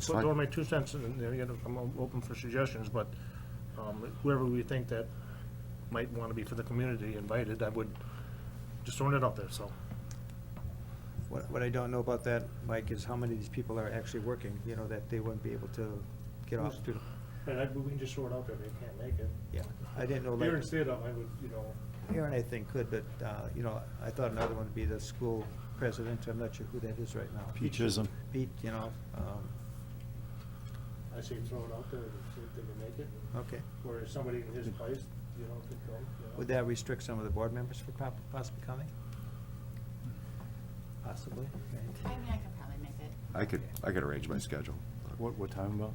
So throwing my two cents, in, and, you know, I'm open for suggestions, but um, whoever we think that might want to be for the community invited, I would, just throwing it out there, so. What, what I don't know about that, Mike, is how many of these people are actually working, you know, that they wouldn't be able to get off to, And I, we can just throw it out there, they can't make it. yeah. I didn't know, Here like, instead of, I would, you know, Aaron, I think, could, but, uh, you know, I thought another one would be the school president, I'm not sure who that is right now. Pete Chisholm. Pete, you know, um, I say throw it out there, and see if they can make it, okay. or if somebody in his place, you know, could go. you know. Would that restrict some of the board members from prob- possibly coming? Possibly, right? I mean, I could probably make it. I could, I could arrange my schedule. What, what time about?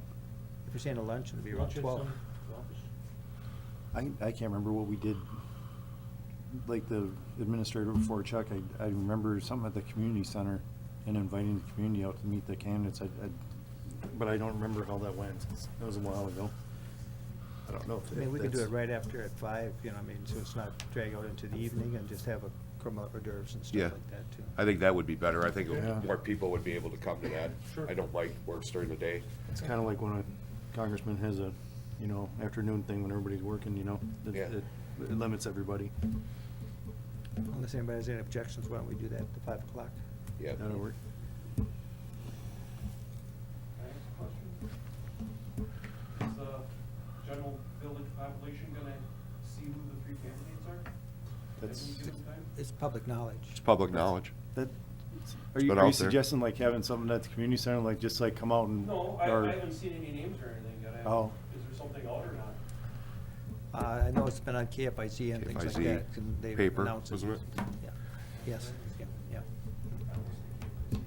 If you're saying a lunch, it'd be around Lunch at twelve. some- well, I, I can't remember what we did, like the administrator before Chuck, I, I remember something at the community center and inviting the community out to meet the candidates, I, I, but I don't remember how that went. That was a while ago. I don't know. if I mean, we could do it that's- right after at five, you know, I mean, so it's not drag out into the evening and just have a crumble hors d'oeuvres and Yeah. stuff like that, too. I think that would be better. I think Yeah. more people would be able to come to that. Sure. I don't like works during the day. It's kind of like when a congressman has a, you know, afternoon thing when everybody's working, you know? It- Yeah. It it limits everybody. Unless anybody has any objections, why don't we do that at five o'clock? Yeah. That'll work. Can I ask a question? Is the general village population gonna see who the three candidates are? at That's- any given time? It's public knowledge. It's public knowledge. That, are you, been are you out there. suggesting like having something at the community center, like just like come out and? No, I, or- I haven't seen any names or anything yet. I haven't- Oh. Is there something out or not? Uh, I know it's been on KFIZ and things like KFIZ, that. and they paper, announce wasn't it? Yeah. Yes, yeah, yeah. I was thinking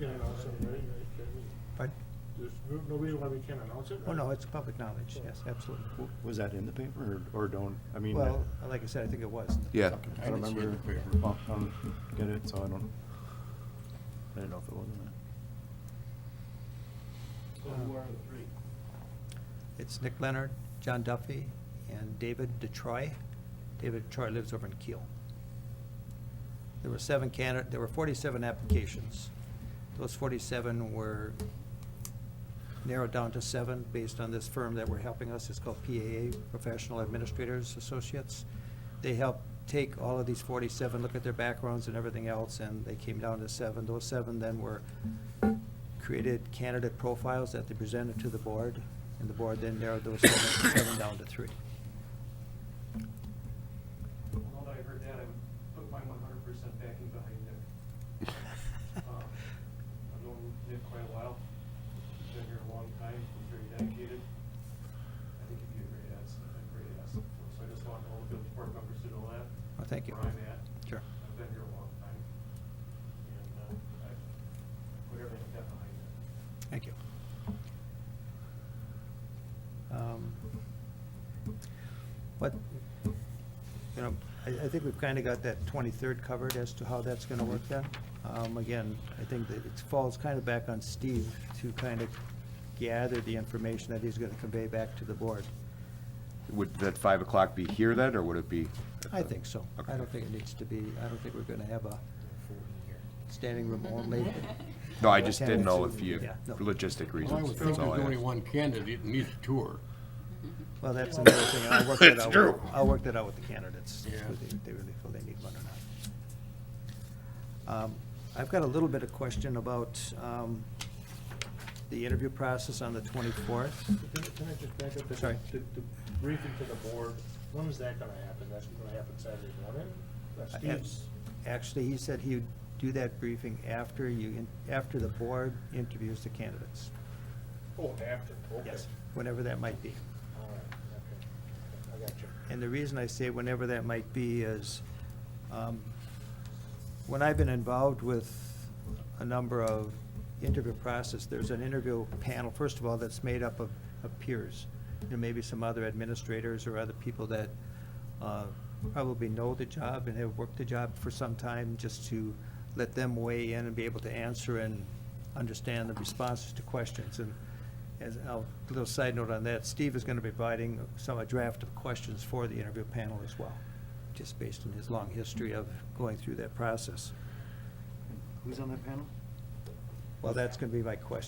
You can announce it, right? Right, Jeremy? Pardon? There's no- no reason why we can't announce it. Oh, right? no, it's public knowledge, yes, absolutely. W- Was that in the paper or, or don't, I mean? Well, like I said, I think it was. Yeah. I don't remember, well, I don't get it, so I don't, I don't know if it was in that. So who are the three? It's Nick Leonard, John Duffy, and David DeTroy. David DeTroy lives over in Kiel. There were seven candidate, there were 47 applications. Those 47 were narrowed down to seven based on this firm that were helping us. It's called PAA, Professional Administrators Associates. They helped take all of these 47, look at their backgrounds and everything else, and they came down to seven. Those seven then were created candidate profiles that they presented to the board, and the board then narrowed those seven seven down to three. Well, now that I heard that, I would put my one hundred percent backing behind Nick. Um, I've known Nick quite a while, He's been here a long time, he's very dedicated. I think he'd be a great asset, a great asset. for us. So I just want all the village board members to know that. Well, thank you. Where I'm at. Sure. I've been here a long time, and uh, I put everything I've got behind it. Thank you. Um, What, you know, I, I think we've kind of got that 23rd covered as to how that's going to work then. Um, Again, I think that it falls kind of back on Steve to kind of gather the information that he's going to convey back to the board. Would that five o'clock be here then, or would it be? at I the- think so. I Okay. don't think it needs to be, I don't think we're going to have a standing room only. No, I just didn't know if you, Yeah, no. for logistic Well, I reasons. would That's think all there's I only asked. one candidate in each tour. Well, that's another thing, I'll work that It's out, true. with- I'll work that out with the candidates, Yeah. whether they- they really feel they need one or not. Um, I've got a little bit of question about um, the interview process on the 24th. Can can I just back up? to- Sorry. to- to Briefing to the board, when is that gonna happen? That's gonna happen Saturday morning? That's I- Steve's, Actually, he said he'd do that briefing after you, in- after the board interviews the candidates. oh, after, okay. Yes, whenever that might be. All right, okay. I got you. And the reason I say whenever that might be is, um, when I've been involved with a number of interview process, there's an interview panel, first of all, that's made up of, of peers. You know, maybe some other administrators or other people that, uh, probably know the job and have worked the job for some time, just to let them weigh in and be able to answer and understand the responses to questions. And as, a little side note on that, Steve is gonna be providing some, a draft of questions for the interview panel as well, just based on his long history of going through that process. Who's on that panel? Well, that's gonna be my question.